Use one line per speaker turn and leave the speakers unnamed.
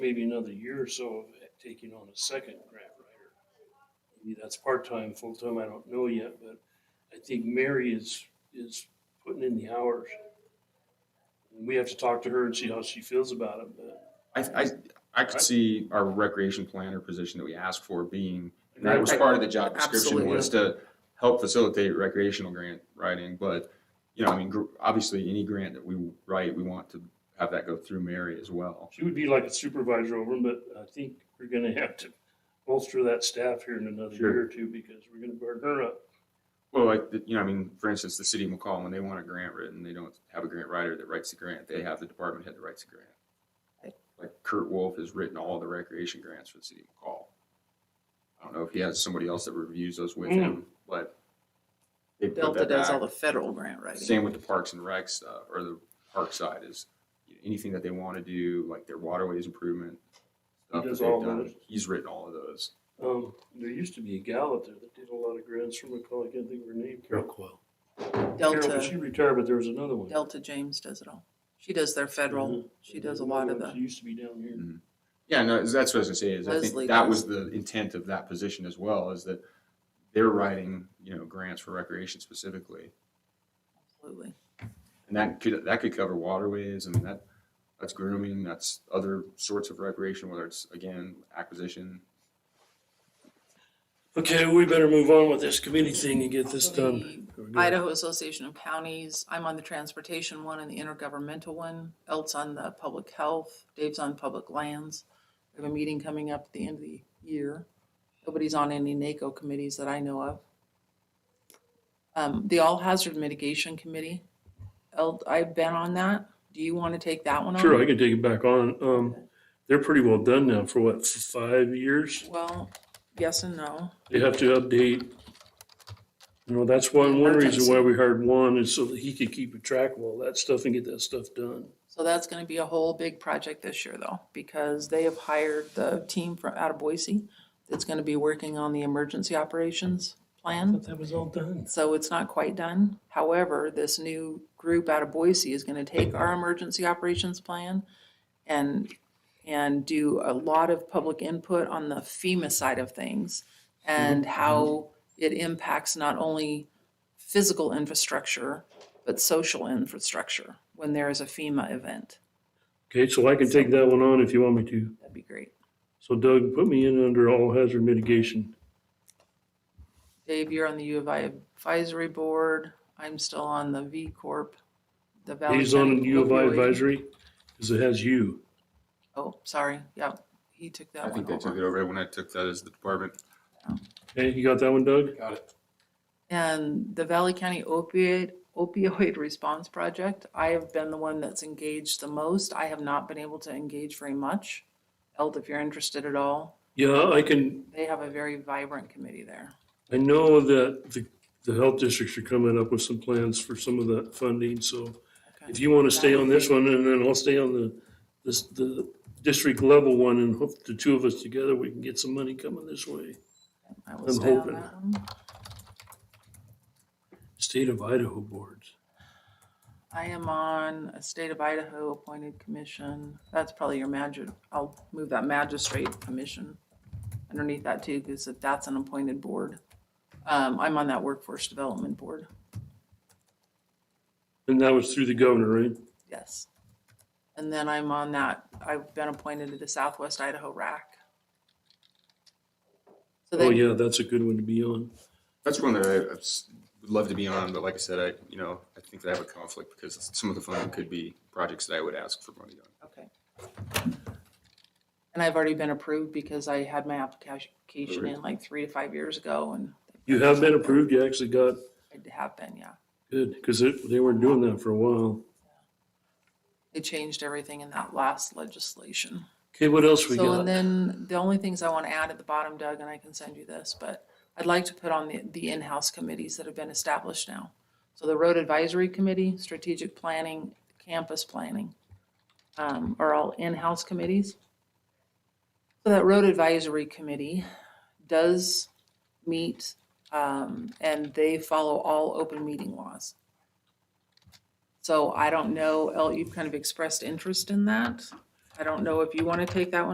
maybe another year or so of taking on a second grant writer. Maybe that's part-time, full-time, I don't know yet, but I think Mary is, is putting in the hours. We have to talk to her and see how she feels about it, but
I, I, I could
Right.
see our recreation planner position that we asked for being, and
Right.
that was part of the job description,
Absolutely.
was to help facilitate recreational grant writing, but, you know, I mean, gr- obviously, any grant that we write, we want to have that go through Mary as well.
she would be like a supervisor over them, but I think we're gonna have to bolster that staff here in another
Sure.
year or two because we're gonna burn her up.
Well, like, the- you know, I mean, for instance, the city of McCall, when they want a grant written, they don't have a grant writer that writes the grant, they have the department head that writes the grant.
Right.
Like Kurt Wolf has written all the recreation grants for the city of McCall. I don't know if he has somebody else that reviews those with
Mm.
him, but. they put
Delta
that
does
back.
all the federal grant writing.
Same with the parks and rec stuff, or the park side is anything that they want to do, like their waterways improvement. stuff that
does
they've
all
done,
those?
He's written all of those.
Um, there used to be a gal out there that did a lot of grants from McCall, I can't think of her name. Carol,
Rockwell.
Carol, but she
Delta,
retired, but there was another one.
Delta James does it all. She does their federal, she does a lot of
She
the,
used to be down here.
Yeah, no, that's what I was gonna say, is I
Leslie
think that was
does.
the intent of that position as well, is that they're writing, you know, grants for recreation specifically.
absolutely.
And that could, that could cover waterways, I mean, that, that's grooming, that's other sorts of recreation, whether it's, again, acquisition.
Okay, we better move on with this committee thing and get this done.
Idaho Association of Counties, I'm on the transportation one and the intergovernmental one, Elt's on the public health, Dave's on public lands. We have a meeting coming up at the end of the year. Nobody's on any NACO committees that I know of. Um, the All Hazard Mitigation Committee, Elt, I've been on that. Do you want to take that one on?
Sure, I can take it back on. Um, they're pretty well done now for what, f- five years?
Well, yes and no.
They have to update. You know, that's one, one reason why we hired one is so that he could keep a track of all that stuff and get that stuff done.
So that's gonna be a whole big project this year though, because they have hired the team from out of Boise that's gonna be working on the emergency operations plan.
That was all done.
So it's not quite done. However, this new group out of Boise is gonna take our emergency operations plan and, and do a lot of public input on the FEMA side of things and
Mm-hmm.
how it impacts not only physical infrastructure, but social infrastructure when there is a FEMA event.
Okay, so I can take that one on if you want me to.
That'd be great.
So Doug, put me in under all hazard mitigation.
Dave, you're on the U of I advisory board. I'm still on the V Corp. the Valley
He's on
County
U of I
Opioid-
advisory because it has you.
Oh, sorry. Yeah, he took
I
that
think
one
they took it
over.
over when I took that as the department.
Okay, you got that one, Doug?
Got it.
And the Valley County opioid, opioid response project, I have been the one that's engaged the most. I have not been able to engage very much. Elt, if you're interested at all,
Yeah, I can,
they have a very vibrant committee there.
I know that the, the health districts are coming up with some plans for some of that funding, so
Okay.
if you want to stay on this one, and then I'll stay on the, this, the district level one, and hope the two of us together, we can get some money coming this way.
I will
I'm
stay on
hoping.
that one.
State of Idaho boards.
I am on a state of Idaho appointed commission. That's probably your magic. I'll move that magistrate commission underneath that too, because if that's an appointed board. Um, I'm on that workforce development board.
And that was through the governor, right?
Yes. And then I'm on that, I've been appointed to the Southwest Idaho RAC. So
Oh,
they,
yeah, that's a good one to be on.
That's one that I I s- would love to be on, but like I said, I, you know, I think that I have a conflict because some of the funding could be projects that I would ask for money on.
okay. And I've already been approved because I had my application in like three to five years ago and
You have been approved, you actually got,
it happened, yeah.
good, because they weren't doing that for a while.
They changed everything in that last legislation.
Okay, what else we
So, and
got?
then the only things I want to add at the bottom, Doug, and I can send you this, but I'd like to put on the, the in-house committees that have been established now. So the Road Advisory Committee, Strategic Planning, Campus Planning, um, are all in-house committees. So that Road Advisory Committee does meet, um, and they follow all open meeting laws. So I don't know, El, you've kind of expressed interest in that. I don't know if you want to take that one